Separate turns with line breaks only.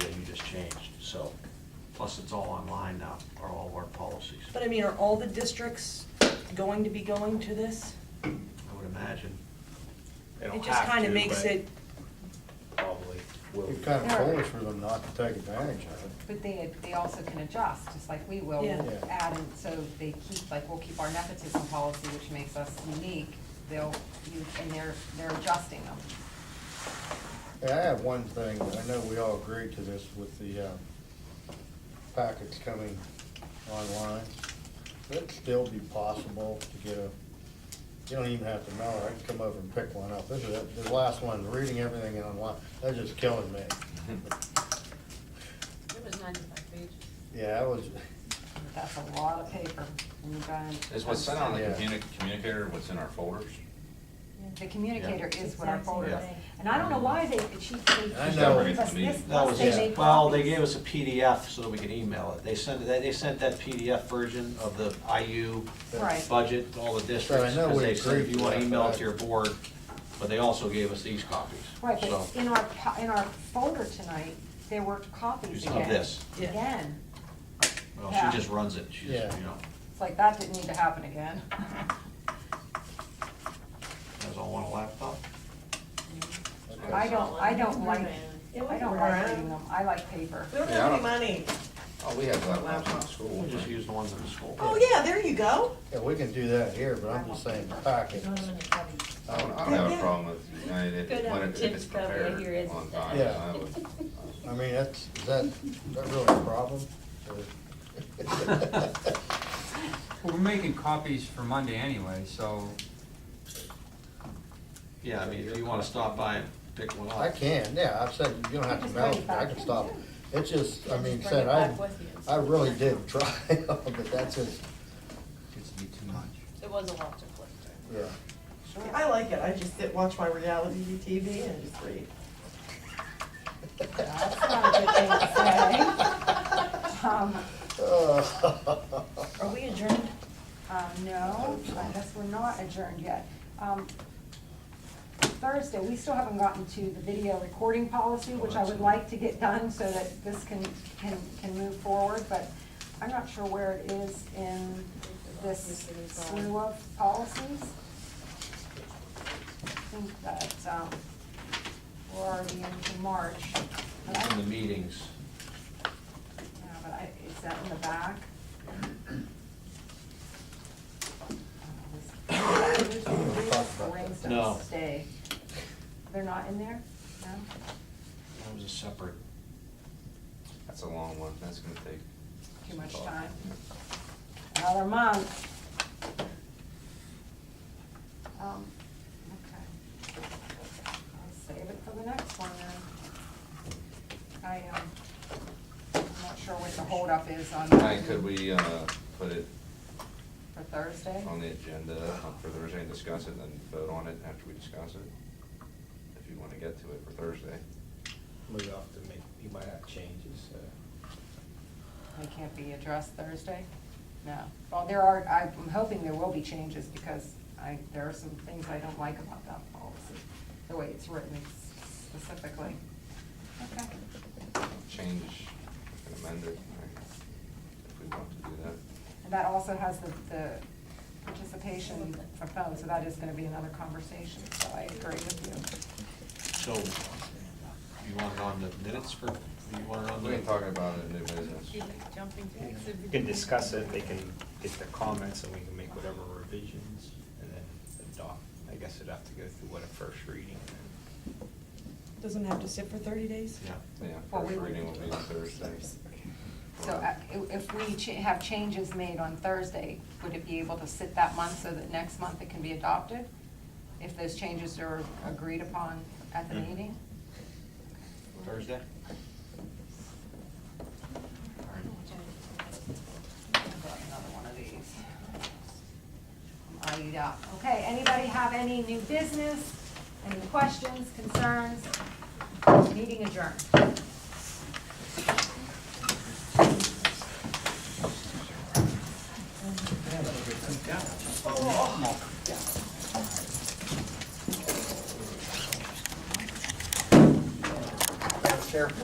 so, plus it's all online now, are all of our policies,
But I mean, are all the districts going to be going to this?
I would imagine.
They don't
It just
have
kind
to,
of makes
but
it,
Probably will.
It's kind of foolish for them not to take advantage of it.
But they, they also can adjust, just like we will,
Yeah.
we'll
Yeah.
add, and so they keep, like, we'll keep our nepotism policy, which makes us unique, they'll, you, and they're, they're adjusting them.
Yeah, I have one thing, I know we all agreed to this with the uh, packets coming online. It'd still be possible to get a, you don't even have to mail it, I can come over and pick one up. This is, the last one, reading everything online, that's just killing me.
It was ninety-five pages.
Yeah, I was,
That's a lot of paper. when you buy it.
Is what's sent on the
Yeah.
communi- communicator, what's in our folders?
The communicator
Yeah.
is what our folder is,
Exactly.
and I don't know why they, she, they
I
she
know.
gave us this,
That
plus
was,
they
yeah.
made
it. well, they
copies.
gave us a PDF so that we could email it, they sent, they they sent that PDF version of the IU
Right.
budget, to all the districts,
know
because
we
they said if
agreed
you
to
wanna
that,
email
but
it
I-
to your board, but they also gave us these copies,
Right,
so.
but in our, po- in our folder tonight, there were copies
Of
again.
this.
Yeah.
Again,
Well,
yeah.
she just runs it, she's, you
Yeah.
know,
it's like, that didn't need to happen again.
has all on a laptop.
I don't, I don't like,
It
I
wasn't
don't like
around.
reading them, I like paper.
We don't
Yeah, I
have any
don't-
money.
Oh, we have laptops in the school.
We'll just use the ones in the school.
Oh, yeah, there you go.
yeah, we can do that here, but I'm just saying the packet.
I don't, I don't have a problem with United if
Go
it-
down
um,
when it-
to
if
Tim's
it's
cupboard,
prepared
here is-
on time.
Yeah.
I would-
I mean, that's, is that, is that really a problem? Or-
Well, we're making copies for Monday anyway, so
Yeah, I mean, if you wanna stop by and pick one up.
I can, yeah, I've said, you don't have to
Just
mail
bring
it,
it
I
back.
can stop it. It's just, I
Just
mean,
bring
said,
it
I,
back with you.
I really did try, but that's just,
it gets to be too much.
It was a lot to flip through.
yeah.
I like it. I just sit, watch my reality TV and just read.
That's not a good thing to say. Um,
are we adjourned?
uh, no, I guess we're not adjourned yet. Um, Thursday, we still haven't gotten to the video recording policy, which I would
Oh,
like to get done so that this can, can, can move forward, but I'm not sure where it is in this slew of policies. I think that, um, we're already into March. but I-
It's in the meetings.
Yeah, but I, is that in the back? Rings
No.
don't stay. They're not in there? No?
That was a separate,
That's a long one, that's gonna take.
Too
some
much
thought.
time. Another month. Um, okay. I'll save it for the next one then. I, um, I'm not sure what the holdup is on
All right, could we, uh, put it
for Thursday.
on the agenda on- for Thursday and discuss it and then vote on it after we discuss it? If you wanna get to it for Thursday.
Move it off to make, you might have changes, uh. so.
They can't be addressed Thursday? No. Well, there are, I'm hoping there will be changes because I, there are some things I don't like about that policy, the way it's written specifically. Okay.
Change, and amend it, right, if we want to do that.
And that also has the, the participation from phones, so that is gonna be another conversation, so I agree with
so you want it on the minutes for, you want it on the?
We can talk about it in new business.
You like jumping to
You
exhibit
can
A?
discuss it, they can get the comments, and we can make whatever revisions, and then adopt. I guess it'd have to go through what a first reading, and then.
Doesn't have to sit for thirty days?
Yeah.
Yeah,
Well, we
first
will-
reading will be on Thursday.
you. So uh, i- if we cha- have changes made on Thursday, would it be able to sit that month so that next month it can be adopted? If those changes are agreed upon at the
Mhm.
meeting?
Thursday? All right.
Got Another one of these. Are you done? Okay, anybody have any new business, any questions, concerns? Meeting adjourned.